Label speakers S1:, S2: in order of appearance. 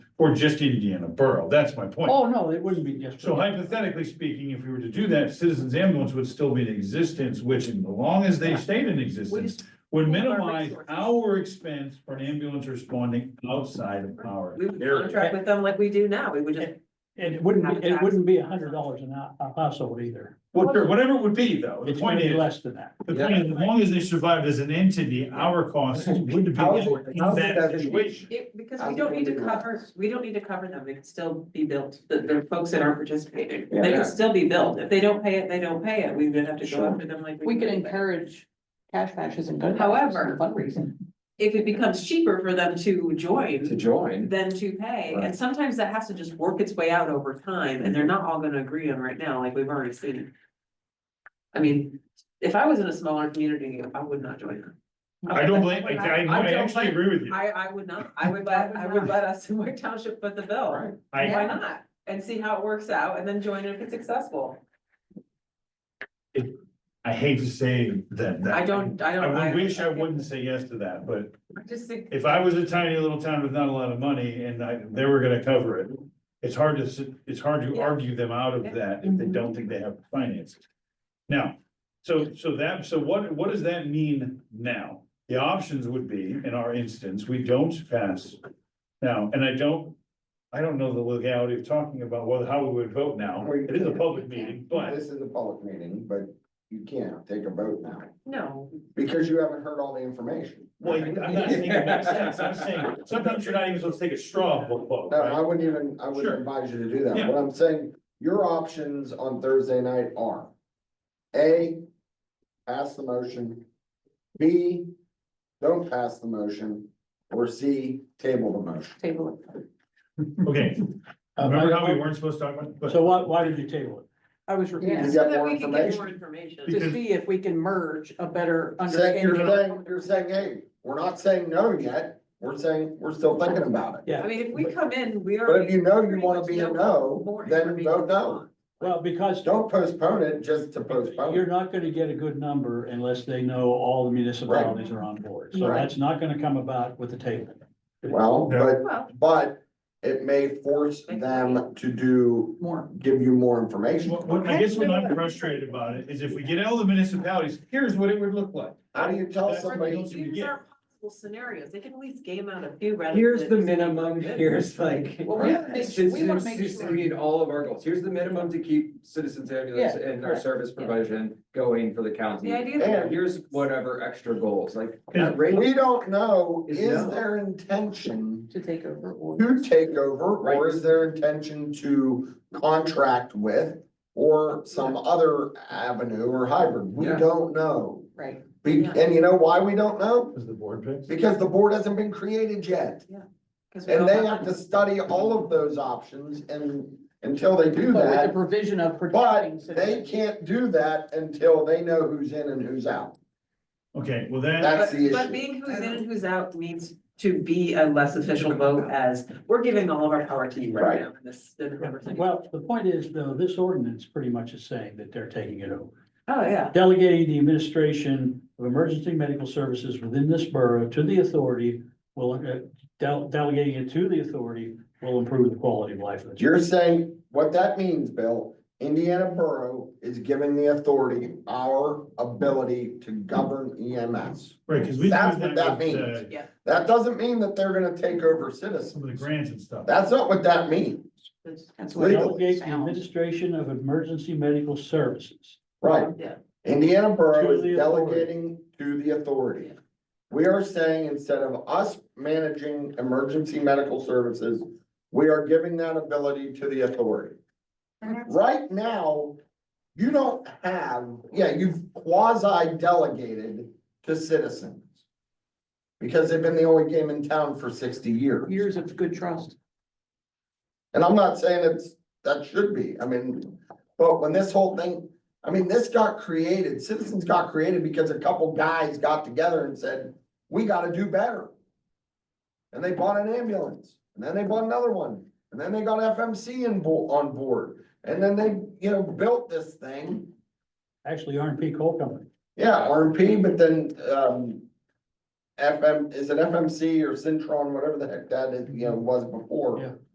S1: Or just Indiana Borough, that's my point.
S2: Oh, no, it wouldn't be just.
S1: So hypothetically speaking, if we were to do that, Citizens Ambulance would still be in existence, which as long as they stayed in existence,
S3: just-
S1: would
S3: pool our
S1: minimize
S3: resources.
S1: our expense for an ambulance responding outside of our
S3: We would
S1: area.
S3: contract with them like we do now, we would just.
S2: And it wouldn't, be- it wouldn't be a hundred
S3: Habitat.
S2: dollars an hou- a household either.
S1: Well, sure, Whatever it would be though, the
S2: It's
S1: point
S2: gonna be
S1: is,
S2: less than that.
S1: the point is, as long as they survived as an entity, our costs would be
S4: How is it-
S1: in
S4: how is it
S1: that
S4: that-
S1: situation.
S3: It, because
S4: I
S3: we don't
S4: think
S3: need to
S4: we do that.
S3: cover, we don't need to cover them, they can still be built, the, the folks that aren't participating,
S4: Yeah,
S3: they
S4: yeah.
S3: can still be built, if they don't pay it, they don't pay it, we would have to go
S4: Sure.
S3: after them like.
S5: We
S3: do
S5: could
S3: anybody.
S5: encourage cash matches and good.
S3: However-
S5: Fundraising.
S3: If it becomes cheaper for them to
S4: to
S3: join
S4: join.
S3: than to pay, and
S4: Right.
S3: sometimes that has to just work its way out over time, and they're not all gonna agree on right now, like we've already seen. I mean, if I was in a smaller community, I would not join them.
S1: I don't blame, I, I
S3: I
S1: I
S3: don't
S1: actually
S3: blame-
S1: agree with you.
S3: I, I would not, I would let, I would let us in my township foot the bill.
S4: Right.
S1: I,
S3: Why not? And see how it works out and then join if it's successful.
S1: I hate to say that. that-
S3: I don't, I
S1: I
S3: don't.
S1: would wish I wouldn't say yes to that, but
S3: I Just think,
S1: If I was a tiny little town with not a lot of money and I, they were gonna cover it, it's hard to, s- it's hard to
S3: Yeah.
S1: argue them out of
S3: Yeah.
S1: that if they don't think they have the finances. Now, so, so that, so what, what does that mean now? The options would be, in our instance, we don't pass now, and I don't, I don't know the legality of talking about what, how we would vote now. It is a public meeting, but
S4: This is a public meeting, but you can't take a vote now,
S3: no,
S4: because you haven't heard all the information.
S1: well, I'm not saying it makes sense. I'm saying sometimes you're not even supposed to take a straw vote.
S4: No,
S1: right?
S4: I wouldn't even, I
S1: Sure.
S4: wouldn't advise you to do that,
S1: Yeah.
S4: what I'm saying, your options on Thursday night are. A, pass the motion, B, don't pass the motion, or C, table the motion.
S5: Table it.
S1: Okay,
S2: Uh,
S1: remember how we
S2: my-
S1: weren't supposed to talk about? but-
S2: So why, why did you table it?
S5: I was
S4: You
S5: repeating,
S4: got
S3: so that
S4: more
S3: we can get
S4: information.
S3: more information.
S5: to see if we can merge a better
S4: Saying,
S5: understanding.
S4: you're saying, you're saying, hey, we're not saying no yet, we're saying, we're still thinking about it.
S3: I
S2: Yeah,
S3: mean, if we come in, we
S4: But
S3: already.
S4: if you know you
S3: pretty
S4: wanna
S3: much
S4: be a
S3: know
S4: no,
S3: more
S4: then
S3: information
S4: vote no.
S2: well, because
S4: Don't postpone it just to postpone.
S2: you're
S4: it.
S2: not gonna get a good number unless they know all the municipalities are on board. So
S4: Right.
S2: that's not gonna come about with the table.
S4: Well, but,
S3: Well,
S4: but it may force them to do,
S5: More.
S4: give you more information.
S1: What, what, I guess what I'm frustrated about it is if we get all the municipalities, here's what it would look like.
S4: How do you tell
S1: That's what
S3: Or
S4: somebody,
S1: those you
S3: These
S1: get.
S3: are possible scenarios, they can at least game out a few rather.
S6: Here's
S3: than
S6: the
S3: just-
S6: minimum, here's like.
S5: Well, we wanna make-
S6: Since,
S5: we wanna
S6: since-
S5: make
S6: since
S5: sure-
S6: we need all of our goals, here's the minimum to keep citizens ambulance
S5: Yeah,
S6: and our
S5: correct.
S6: service provision going for the county.
S3: The idea
S4: Yeah.
S3: that
S6: And here's whatever extra goals, like.
S1: Yeah.
S6: rate-
S4: we don't know,
S6: Is
S4: is
S6: no.
S4: their intention
S5: To take over or.
S4: to take over? Or
S6: Right.
S4: is their intention to contract with? Or some other avenue or hybrid? We
S6: Yeah.
S4: don't know.
S5: Right.
S4: Be-
S3: Yeah.
S4: And you know why we don't know?
S1: Is the board picks?
S4: Because the board hasn't been created yet.
S3: 'cause we
S4: And
S3: all
S4: they have to study all of those options and until they do
S5: But with the
S4: that,
S5: provision of protecting.
S4: but they can't do that until they know who's in and who's out.
S1: Okay, well that,
S4: That's
S3: But,
S4: the
S3: but
S4: issue.
S3: being who's in and who's out needs to be a less official vote as, we're giving all of our power to you right
S4: Right.
S3: now in this, in everything.
S2: Well, the point is though, this ordinance pretty much is saying that they're taking it over.
S3: Oh, yeah.
S2: Delegating the administration of emergency medical services within this borough to the authority will, uh, del- delegating it to the authority will improve the quality of life. of the-
S4: You're saying, what that means, Bill, Indiana Borough is giving the authority our ability to govern EMS.
S1: right, cause we.
S4: That's
S1: do
S4: what
S1: with,
S4: that means.
S1: uh,
S4: That doesn't mean that they're gonna take over
S1: Some of the
S4: citizens.
S1: grants and stuff.
S4: That's not what that means,
S5: That's what
S4: Legal.
S2: Delegate
S5: it
S2: the
S5: sounds.
S2: administration of emergency medical services.
S4: right?
S3: Yeah.
S4: Indiana Borough
S2: To
S4: is
S2: the authority.
S4: delegating to the authority. We are saying instead of us managing emergency medical services, we are giving that ability to the authority. Right now, you don't have, yeah, you've quasi delegated to citizens. Because they've been the only game in town for sixty years.
S5: Years of good trust.
S4: And I'm not saying it's, that should be, I mean, but when this whole thing, I mean, this got created, citizens got created because a couple guys got together and said, we gotta do better. And they bought an ambulance, and then they bought another one, and then they got FMC in bo- on board, and then they, you know, built this thing.
S2: Actually, R and P Coal Company.
S4: Yeah, RMP, but then, um, FM, is it FMC or Centron, whatever the heck that, is, you know, was before.
S2: Yeah.